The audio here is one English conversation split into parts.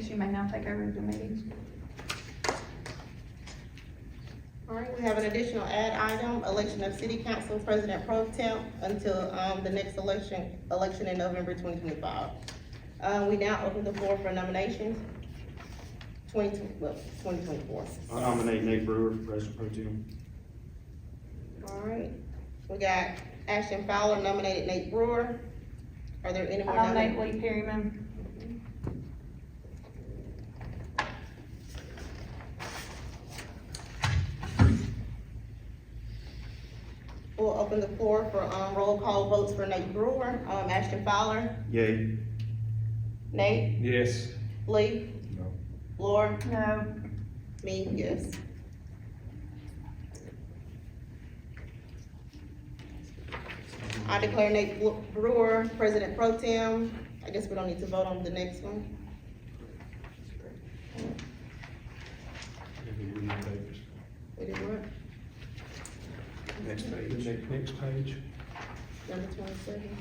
she may now take over the meeting. All right, we have an additional ad item, election of city council president pro temp until, um, the next election, election in November twenty twenty-five. Uh, we now open the floor for nominations. Twenty, well, twenty twenty-four. I nominate Nate Brewer for president pro tem. All right, we got Ashton Fowler nominated Nate Brewer. Are there any I more nominate nominations? Lee Perryman. We'll open the floor for, um, roll call votes for Nate Brewer, um, Ashton Fowler, Yay. Nate, Yes. Lee. No. Laura, No, me, yes. I declare Nate Bru- Brewer President Pro Tem. I guess we don't need to vote on the next one. We did what? Next page. Next page. Number twenty-seven.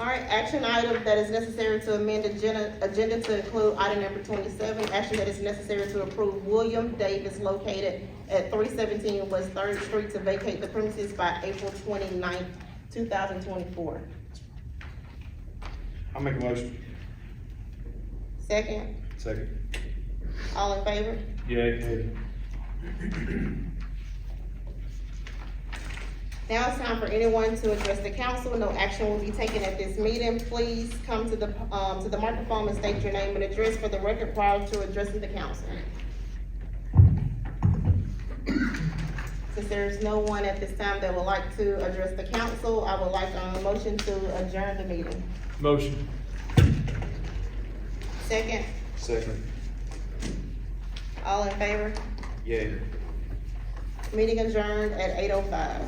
All right, action item that is necessary to amend agenda, agenda to include item number twenty-seven. Action that is necessary to approve William Davis located at three seventeen West Third Street to vacate the premises by April 29th, thousand twenty-four. I'll make a motion. Second, Second. all in favor? Yay. Now it's time for anyone to address the council. No action will be taken at this meeting. Please come to the, um, to the microphone and state your name and address for the record prior to addressing the council. Since there's no one at this time that would like to address the council, I would like a motion to adjourn the meeting. Motion. Second, Second. all in favor? Yay. Meeting adjourned at eight oh five.